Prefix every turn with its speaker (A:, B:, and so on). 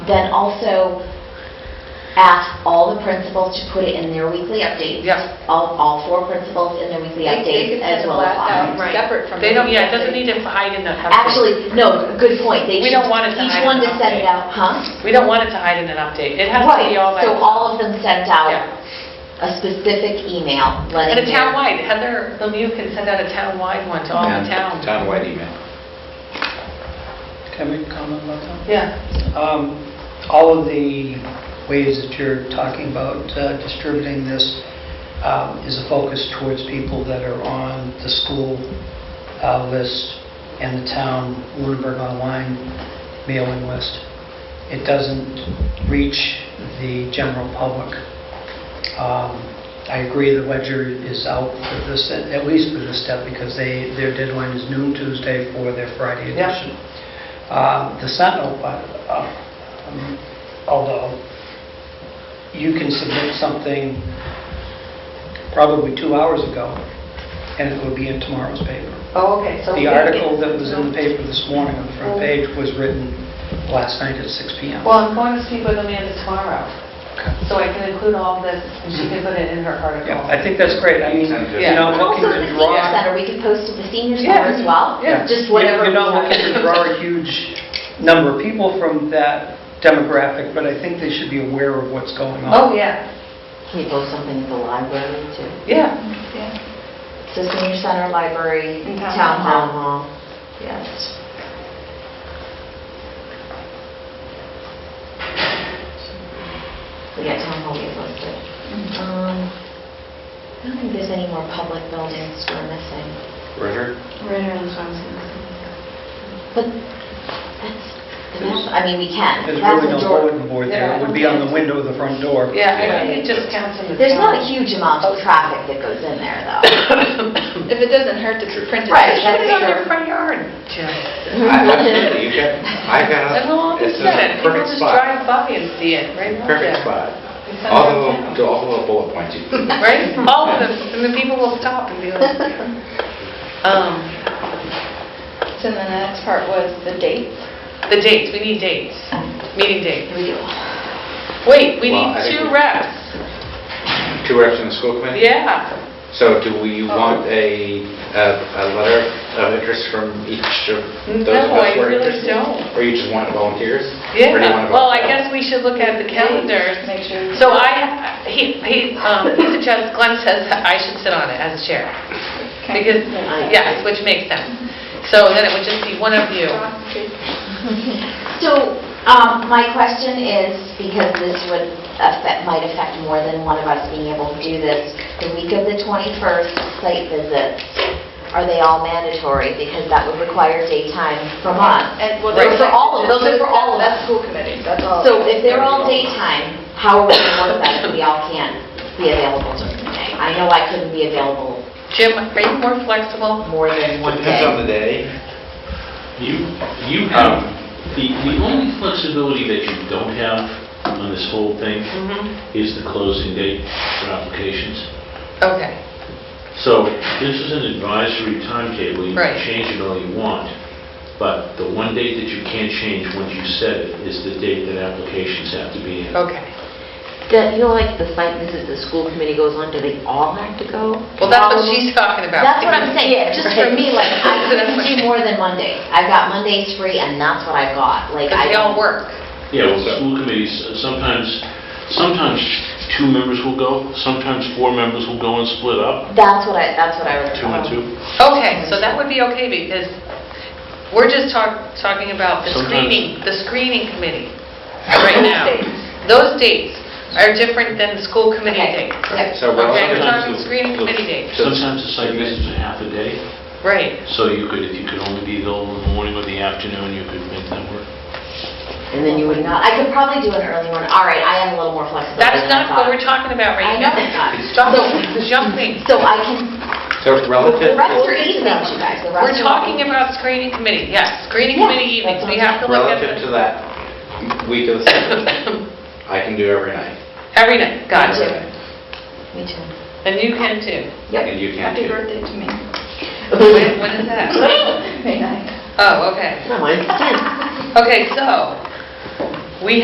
A: Then also ask all the principals to put it in their weekly updates.
B: Yeah.
A: All, all four principals in their weekly
C: They- they
A: updates
C: could
A: as
C: send a
A: well as
C: blast out.
A: mine.
B: Right.
C: separate from
B: They
C: the
B: don't, yeah, it doesn't
C: meeting.
B: need to hide in the. update.
A: Actually, no, good point. They
B: We
A: should-
B: don't want it to
A: Each
B: hide
A: one
B: in
A: to
B: an
A: send it
B: update.
A: out, huh?
B: We don't want it to hide in an update. It has to
A: Right,
B: be all that.
A: so all of them sent out
B: Yeah.
A: a specific email letting.
B: And a
A: their-
B: townwide, Heather Lemieux can send out a townwide one to all the towns.
D: Townwide email.
E: Can I make a comment about
B: Yeah.
E: that? Um, All of the ways that you're talking about uh, distributing this um, is a focus towards people that are on the school uh, list and the town Lunenburg Online mailing list. It doesn't reach the general public. Um, I agree the Ledger is out for this, at least for this step, because they, their deadline is noon Tuesday for their Friday
B: Yeah.
E: edition. Uh, The Sentinel, uh, um, although you can submit something probably two hours ago, and it would be in tomorrow's paper.
B: Oh, okay, so.
E: The article that was in the paper this morning on the front page was written last night at 6 PM.
B: Well, I'm going to speak with Amanda tomorrow,
E: Okay.
B: so I can include all this, and she can put it in her article.
E: Yeah, I think that's great. I mean,
D: Yeah.
E: you're not looking
A: Also, the
E: to
A: senior
E: draw...
A: center, we could post to the senior
B: Yeah.
A: center as well.
B: Yeah.
A: Just
E: You're-
A: whatever.
E: You're not
A: we have.
E: looking to draw a huge number of people from that demographic, but I think they should be aware of what's going on.
B: Oh, yeah,
A: Can you post something at the library too?
B: yeah.
A: So senior center, library,
B: And town
A: town
B: hall.
A: hall. Yes. We got town hall, we have listed. Um, I don't think there's any more public buildings we're missing.
D: Ritter?
A: But that's, that's- I mean, we can.
E: There's
A: That's
E: really no
A: the door.
E: bulletin board there. It would be
B: Yeah.
E: on the window of the front door.
B: Yeah, I think it just counts in the.
A: There's not a
B: town.
A: huge amount of traffic that goes in there, though.
C: If it doesn't hurt to print it.
A: Right.
B: Put it on your front yard. Jill.
D: I- Absolutely, you can, I got,
B: And we'll all
D: it's
B: just,
D: a
B: people
D: perfect
B: just
D: spot.
B: drive by and see it, right?
D: Perfect
B: Yeah.
D: spot.
B: It's on
D: All the
B: our
D: little,
B: town.
D: all the little bullet points. you-
B: Right? All of them, and the people will stop and be like, um,
C: So then the next part was the dates.
B: the dates, we need dates, meeting dates.
A: Here we go.
B: Wait, we
D: Well,
B: need
D: I think
B: two
D: we-
B: reps,
D: Two reps in the school committee?
B: yeah. Oh.
D: So do we want a, a a letter of interest from each of those
B: No,
D: of us
B: I
D: who are
B: really
D: interested?
B: don't.
D: Or you just want volunteers? Or do you
B: Yeah,
D: want
B: well, I
D: volunteer?
B: guess we should look at the calendars.
C: Make sure.
B: So I, he, he, um, he suggests, Glenn says that I should sit on it as chair.
C: Okay.
B: Because, yes, which makes sense. So then it would just be one of you.
A: So, um, my question is, because this would affect, might affect more than one of us being able to do this, the week of the 21st site visits, are they all mandatory? Because that would require daytime from us.
C: And, well,
A: Right.
C: those
A: For all of- those are for all of
C: That's
A: us.
C: school committee, that's all.
A: So if they're all daytime, how are we going to work that if we all can't be available during the day? I know I couldn't be available
B: Jim, are you more flexible?
A: more than one
D: Depends
A: day.
D: on the day.
F: You, you
D: Um,
F: have, the, the only flexibility that you don't have on this whole thing
B: Mm-hmm.
F: is the closing date for applications.
B: Okay.
F: So this is an advisory timetable, you
B: Right.
F: can change it all you want, but the one date that you can't change once you set it is the date that applications have to be in.
B: Okay.
G: The, you know, like the site visit the school committee goes on, do they all have to go?
B: Well, that's what she's talking about.
A: Um, That's what I'm saying, just for me, like, I
B: So that's
A: couldn't
B: what-
A: do more than Monday. I've got Mondays free, and that's what I've got. Like,
B: Because
A: I
B: they all
A: don't
B: work.
F: Yeah, well, school committees, uh, sometimes, sometimes two members will go, sometimes four members will go and split up,
A: That's what I, that's what I was.
F: two and two.
B: Uh-huh. Okay, so that would be okay because we're just talk, talking about the
F: Sometimes-
B: screening, the screening committee right now.
C: dates.
B: Those dates are different than the school committee
A: Okay.
B: dates.
D: Right, So we're
B: Okay,
D: also
B: we're
D: gonna-
B: talking screening committee dates.
D: So-
F: Sometimes the site visits are half a day.
B: Right.
F: So you could, if you could only be available in the morning or the afternoon, you could make that work?
G: And then you would not,
A: I could probably do an early one. All right, I am a little more flexible than I
B: That's not what
A: thought.
B: we're talking about
A: I
B: right
A: know
B: now.
A: it's not.
B: Stop
A: So-
B: jumping.
A: So I can,
D: So
A: the
D: relative,
A: rest are easy, you guys. The rest
B: We're
A: are-
B: talking about screening committee, yes, screening
A: Yeah,
B: committee evenings.
A: that's
B: We
A: what
B: have to look at
D: relative to
B: it
D: that week of the summer, I can do every night.
B: every night. Got
D: Every
B: you.
D: night.
A: Me too.
B: And you can too.
D: And you can
C: Happy
D: too.
C: birthday to me,
B: When when is that?
C: May 9th.
B: Oh, okay.
G: no, mine's ten.
B: Okay, so,